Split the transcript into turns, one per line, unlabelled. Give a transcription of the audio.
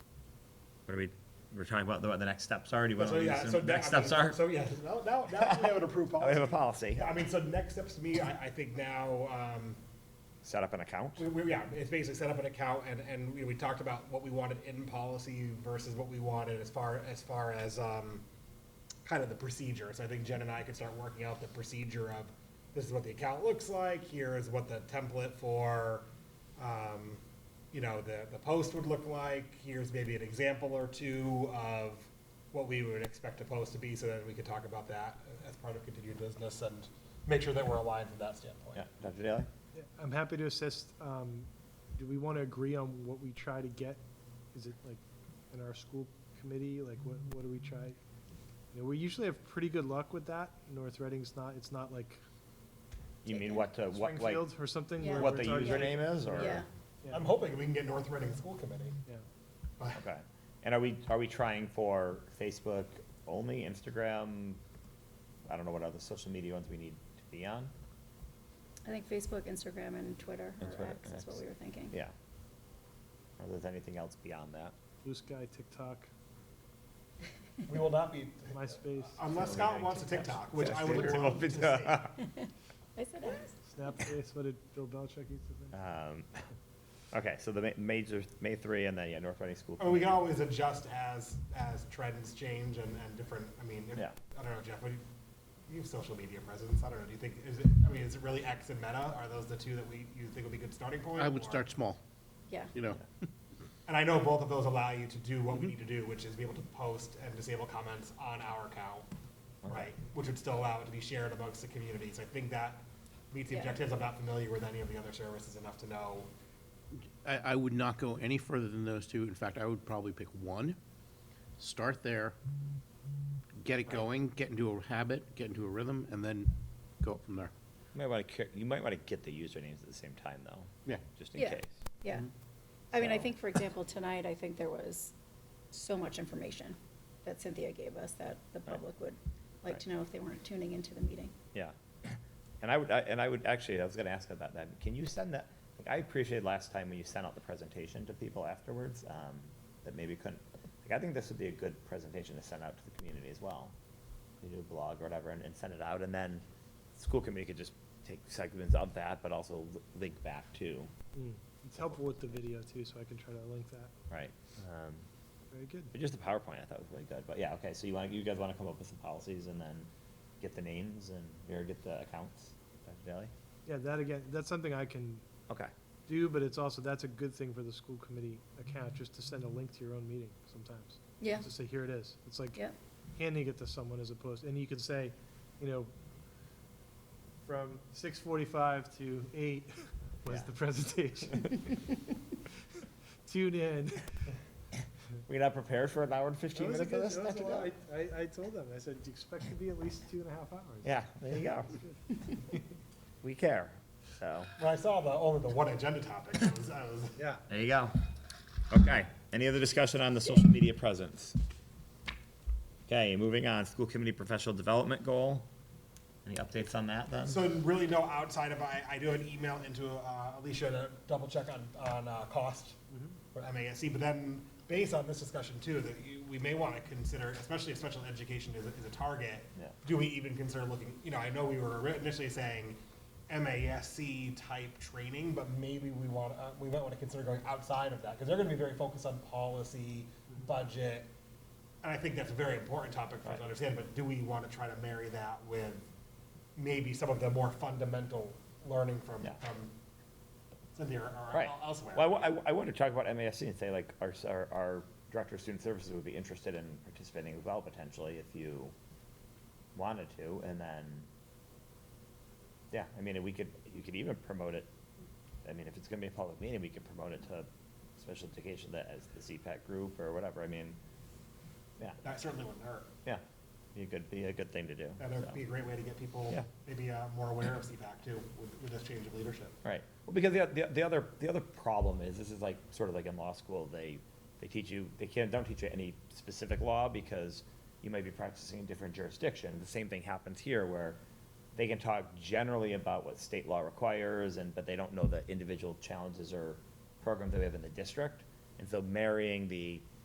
what are we, we're talking about the- what the next steps are, do you want
So,
to leave
yeah,
this
so
in-
that-
next
I mean,
steps are?
So, yeah, now, now, now we have an approved
Now we have a
policy.
policy.
Yeah, I mean, so next steps to me, I, I think now, um,
Set up an account.
we, we, yeah, it's basically set up an account and, and we, we talked about what we wanted in policy versus what we wanted as far, as far as, um, kind of the procedure. So I think Jen and I could start working out the procedure of, this is what the account looks like, here is what the template for, um, you know, the, the post would look like, here's maybe an example or two of what we would expect a post to be, so that we could talk about that as part of continued business and make sure that we're aligned from that standpoint.
Yeah, Dr. Daly?
Yeah, I'm happy to assist. Um, do we want to agree on what we try to get? Is it like in our school committee? Like what, what do we try? You know, we usually have pretty good luck with that. North Reading's not, it's not like
You mean what, to- what, like,
Springfield or something.
Yeah.
where
what
we're
the
talking-
username is, or?
Yeah.
Yeah,
I'm hoping we can get North Reading School Committee.
yeah.
Okay. And are we, are we trying for Facebook only, Instagram? I don't know what other social media ones we need to be on.
I think Facebook, Instagram, and Twitter,
And
or
Twitter,
X is what
X.
we were thinking.
Yeah. Or there's anything else beyond that?
Blue Sky, TikTok,
We will not be,
MySpace,
unless Scott wants a TikTok, which I would love to see.
I said X.
Snapface, what did Bill Belichick used to think?
Um, Okay, so the ma- major, May three, and then, yeah, North Reading School.
I mean, Oh, we can
Committee.
always adjust as, as trends change and, and different, I mean, if-
Yeah.
I don't know, Jeff, what do you, you have social media presence, I don't know, do you think, is it, I mean, is it really X and Meta? Are those the two that we, you think would be good starting point?
I would
or-
start small,
Yeah.
you know.
And I know both of those allow you to do
Mm-hmm.
what we need to do, which is be able to post and disable comments on our account, right? Which would still allow it to be shared amongst the community, so I think that meets the
Yeah.
objectives, I'm not familiar with any of the other services enough to know.
I, I would not go any further than those two. In fact, I would probably pick one. Start there, get it going, get into a habit, get into a rhythm, and then go up from there.
You might want to, you might want to get the usernames at the same time, though.
Yeah.
Just in
Yeah.
case.
Yeah. I mean, I
Mm-hmm. So-
think, for example, tonight, I think there was so much information that Cynthia gave us that the
Right.
public would like
Right.
to know if they weren't tuning into the meeting.
Yeah. And I would, I- and I would, actually, I was gonna ask about that. Can you send that, like, I appreciated last time when you sent out the presentation to people afterwards, um, that maybe couldn't, like, I think this would be a good presentation to send out to the community as well. You do a blog or whatever and, and send it out, and then the school committee could just take segments of that, but also li- link back too,
Mm. It's helpful with the video too, so I can try to link that.
right? Um,
Very good.
but just the PowerPoint I thought was really good, but yeah, okay, so you want, you guys wanna come up with some policies and then get the names and, or get the accounts, Dr. Daly?
Yeah, that again, that's something I can
Okay.
do, but it's also, that's a good thing for the school committee account, just to send a link to your own meeting sometimes.
Yeah.
Just say, here it is. It's like
Yeah.
handing it to someone as opposed, and you can say, you know, from six forty-five to eight was
Yeah.
the presentation. Tune in.
We're not prepared for an hour and fifteen minutes for this? Dr. Dale?
I, I told them, I said, expect to be at least two and a half hours.
Yeah, there you go. We care, so,
When I saw the, only the one agenda topic, I was, I was.
Yeah.
there you go. Okay, any other discussion on the social media presence? Okay, moving on, school committee professional development goal. Any updates on that then?
So really no outside of, I, I do an email into uh, Alicia to double check on, on uh, cost for MASC, but then based on this discussion too, that you- we may want to consider, especially if special education is a, is a target,
Yeah.
do we even consider looking, you know, I know we were ri- initially saying MASC type training, but maybe we want, uh, we might want to consider going outside of that, because they're going to be very focused on policy, budget, and I think that's a very important topic for us to understand, but do we want to try to marry that with maybe some of the more fundamental learning from,
Yeah.
from Cynthia or- or
Right.
elsewhere?
Well, I, wa- I want to talk about MASC and say like, our, s- our, our director of student services would be interested in participating as well potentially if you wanted to, and then, yeah, I mean, we could, you could even promote it, I mean, if it's gonna be a public meeting, we could promote it to special education that as the CPAC group or whatever, I mean, yeah,
That certainly wouldn't hurt.
yeah, be a good, be a good thing to do.
That would
so.
be a great way to get people
Yeah.
maybe uh, more aware of CPAC too, with, with this change of leadership.
Right. Well, because the, the, the other, the other problem is, this is like, sort of like in law school, they, they teach you, they can't, don't teach you any specific law because you might be practicing in different jurisdiction. The same thing happens here where they can talk generally about what state law requires and, but they don't know the individual challenges or programs that we have in the district. And so marrying the